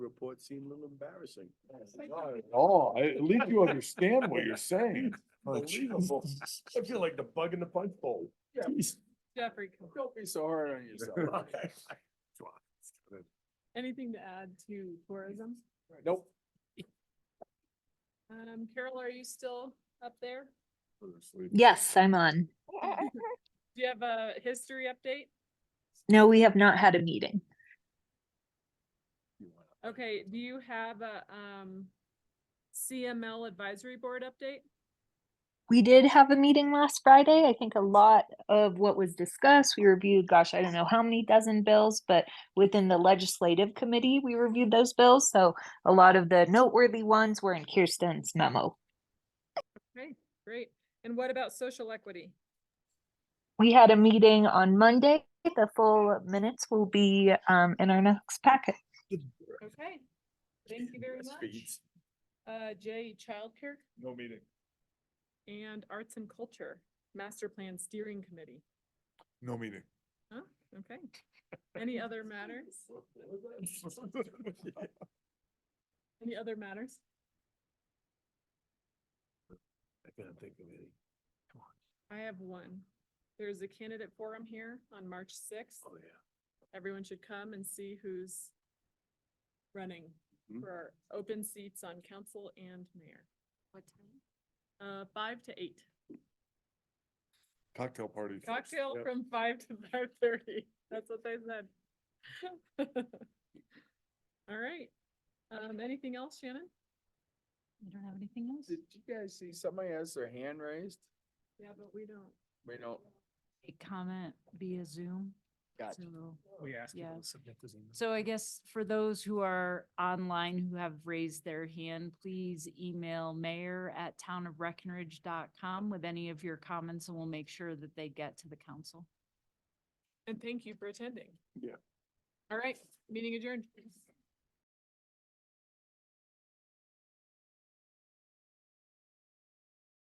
report seemed a little embarrassing. Oh, I- at least you understand what you're saying. Oh, Unbelievable. I feel like the bug in the punch bowl. Yeah, Jeffrey, don't be so hard on yourself. anything to add to tourism? Nope. Um, Carol, are you still up there? Yes, I'm on. Do you have a history update? No, we have not had a meeting. Okay, do you have a, um, CML advisory board update? We did have a meeting last Friday. I think a lot of what was discussed, we reviewed, gosh, I don't know how many dozen bills, but within the legislative committee, we reviewed those bills. So a lot of the noteworthy ones were in Kirsten's memo. Okay, great. And what about social equity? We had a meeting on Monday. The full minutes will be um, in our next packet. Okay, thank you very much. Uh, Jay, childcare No meeting. and arts and culture, master plan steering committee. No meeting. Huh? Okay. Any other matters? Any other matters? I can't think of any. Come on. I have one. There's a candidate forum here on March sixth. Oh, yeah. Everyone should come and see who's running Mhm. for our open seats on council and mayor. What time? Uh, five to eight. Cocktail party. Cocktail Yep. from five to five thirty. That's what they said. All right. Um, anything else, Shannon? I don't have anything else. Did you guys see somebody has their hand raised? Yeah, but we don't. We don't. a comment via Zoom. Gotcha. so- We asked people Yeah. to submit those emails. So I guess for those who are online who have raised their hand, please email mayor@townofbreckenridge.com with any of your comments and we'll make sure that they get to the council. And thank you for attending. Yeah. All right, meeting adjourned.